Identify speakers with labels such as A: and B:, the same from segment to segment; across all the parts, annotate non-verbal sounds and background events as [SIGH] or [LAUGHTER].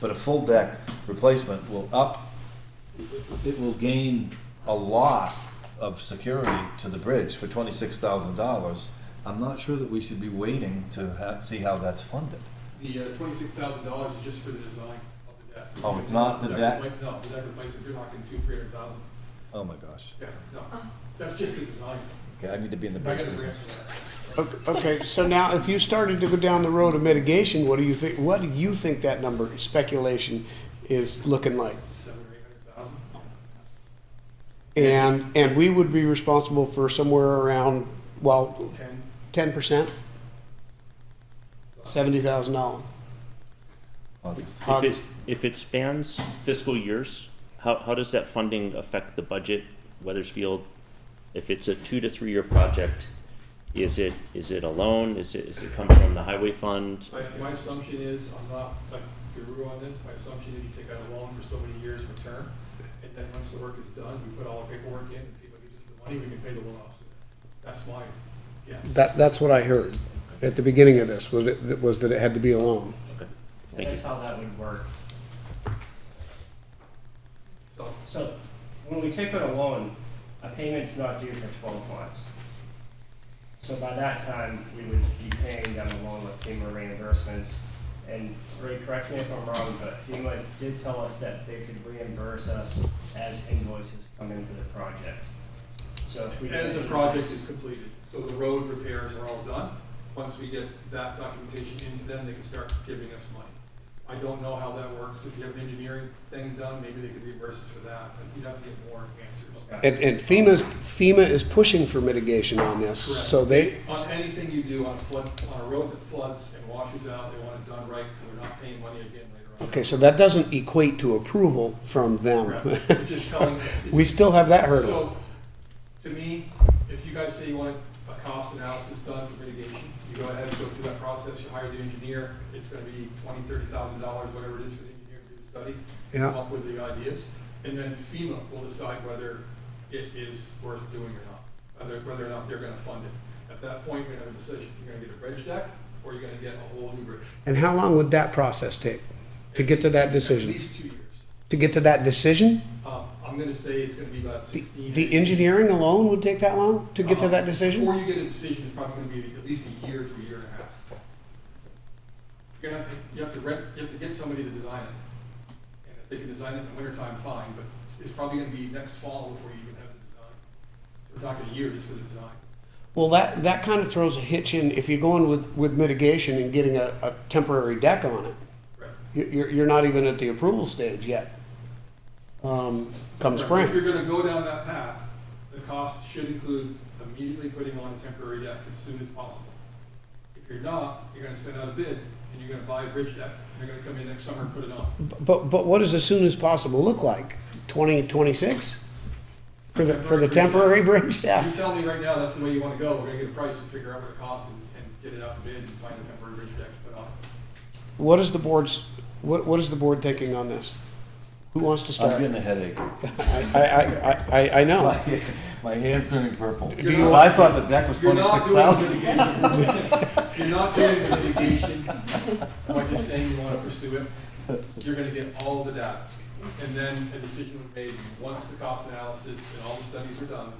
A: But a full deck replacement will up, it will gain a lot of security to the bridge for twenty-six thousand dollars. I'm not sure that we should be waiting to ha- see how that's funded.
B: The uh, twenty-six thousand dollars is just for the design of the deck.
A: Oh, it's not the deck?
B: repla- No, the deck replacement, you're knocking two, three hundred thousand.
A: Oh, my gosh.
B: Yeah, no, that's just the design.
A: Okay, I need to be in the
B: I got
A: bridge
B: a grant
A: business.
B: for that.
C: Ok- Okay, so now if you started to go down the road of mitigation, what do you think, what do you think that number, speculation, is looking like?
B: Seven or eight hundred thousand.
C: And, and we would be responsible for somewhere around, well,
B: Ten.
C: ten percent? Seventy thousand dollars.
A: August.
D: If it, if it spans fiscal years, how, how does that funding affect the budget, Weathersfield? If it's a two to three-year project, is it, is it a loan? Is it, is it come from the highway fund?
B: My, my assumption is, I'm not a guru on this, my assumption is you take out a loan for so many years in term, and then once the work is done, we put all the paperwork in, and people gives us the money, we can pay the loan off. That's my guess.
C: That, that's what I heard at the beginning of this, was it, was that it had to be a loan.
D: Thank you.
E: That's how that would work.
B: So,
E: So when we take out a loan, a payment's not due for twelve months. So by that time, we would be paying down the loan with FEMA reimbursements. And Ray, correct me if I'm wrong, but FEMA did tell us that they could reimburse us as invoices come in for the project. So if we.
B: as the project is completed, so the road repairs are all done, once we get that documentation into them, they can start giving us money. I don't know how that works, if you have an engineering thing done, maybe they could reimburse us for that, but you'd have to get more answers.
C: And, and FEMA's, FEMA is pushing for mitigation on this, so they,
B: On anything you do on a flood, on a road that floods and washes out, they want it done right, so they're not paying money again later on.
C: okay, so that doesn't equate to approval from them.
B: Correct. They're just telling us-
C: We still have that hurdle.
B: So, to me, if you guys say you want a cost analysis done for mitigation, you go ahead and go through that process, you hire the engineer, it's gonna be twenty, thirty thousand dollars, whatever it is for the engineer to do the study. Come
C: Yeah,
B: up with the ideas, and then FEMA will decide whether it is worth doing or not, whether, whether or not they're gonna fund it. At that point, you're gonna have a decision, you're gonna get a bridge deck, or you're gonna get a whole new bridge.
C: and how long would that process take to get to that
B: At
C: decision?
B: least two years.
C: To get to that decision?
B: Um, I'm gonna say it's gonna be about
C: The,
B: sixteen.
C: the engineering alone would take that long to get to that decision?
B: Before you get a decision, it's probably gonna be at least a year to a year and a half. You're gonna have to, you have to rent, you have to get somebody to design it. And if they can design it in the wintertime, fine, but it's probably gonna be next fall before you even have the design. So we're talking a year just for the design.
C: Well, that, that kind of throws a hitch in if you're going with, with mitigation and getting a, a temporary deck on it.
B: Correct.
C: You- You're, you're not even at the approval stage yet. Um, come
B: Correct. If
C: spring.
B: you're gonna go down that path, the cost should include immediately putting on a temporary deck as soon as possible. If you're not, you're gonna send out a bid, and you're gonna buy a bridge deck, and they're gonna come in next summer and put it on.
C: But, but what does as soon as possible look like? Twenty, twenty-six? For the, for the temporary [LAUGHS] bridge,
B: If
C: yeah.
B: you tell me right now that's the way you wanna go, we're gonna get a price and figure out what it costs and, and get it out to bid and find a temporary bridge deck to put on.
C: What is the board's, what, what is the board thinking on this? Who wants to
A: I'm
C: start?
A: getting a headache. [LAUGHS]
C: I, I, I- I, I know.
A: My my hand's turning purple.
B: You're
A: Because
B: not-
A: I thought the deck was
B: You're not
A: twenty-six
B: doing
A: thousand.
B: litigation. You're not doing the mitigation, by just saying you wanna pursue it, you're gonna get all the data. And then a decision will be made, once the cost analysis and all the studies are done,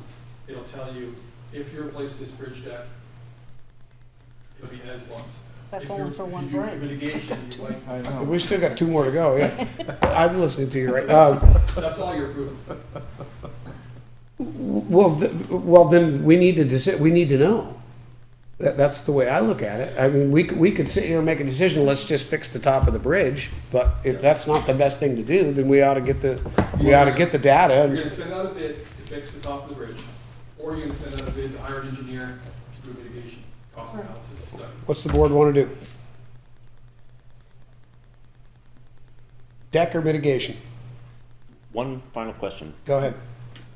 B: it'll tell you if you replace this bridge deck, it'll be as once.
F: That's
B: If you-
F: only for
B: if you
F: one
B: do
F: bridge.
B: Mitigation,
F: [LAUGHS]
B: you like,
A: I know.
C: We still got two more to go, [LAUGHS] yeah. I'm listening to you right now.
B: that's all you're approving.
C: Well, th- well, then we need to deci- we need to know. That, that's the way I look at it. I mean, we, c- we could sit here and make a decision, let's just fix the top of the bridge. But if that's not the best thing to do, then we ought to get the, we ought to get the data.
B: You're
C: and-
B: gonna send out a bid to fix the top of the bridge, or you're gonna send out a bid to hire an engineer to do mitigation, cost analysis study.
C: What's the board want to do? Deck or mitigation?
D: One final question.
C: Go ahead.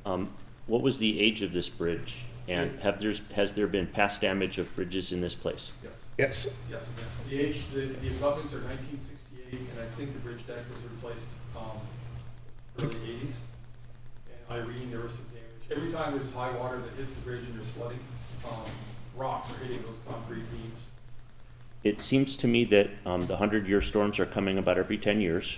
D: Um, what was the age of this bridge? And have there's, has there been past damage of bridges in this place?
B: Yes,
C: Yes.
B: yes, and yes. The age, the, the abutments are nineteen sixty-eight, and I think the bridge deck was replaced, um, early eighties. And Irene, there was some damage. Every time there's high water that hits the bridge and there's flooding, um, rocks are hitting those concrete beams.
D: It seems to me that, um, the hundred-year storms are coming about every ten years.